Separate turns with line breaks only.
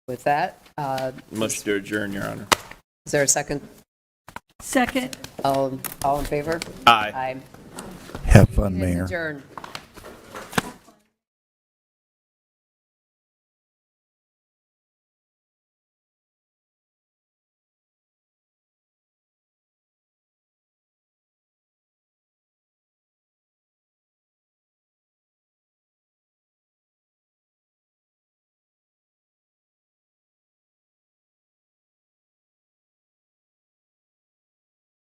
With that, uh,
Motion to adjourn, Your Honor.
is there a second?
Second.
All all in favor?
Aye.
Aye.
Have fun, Mayor.
Adjourn.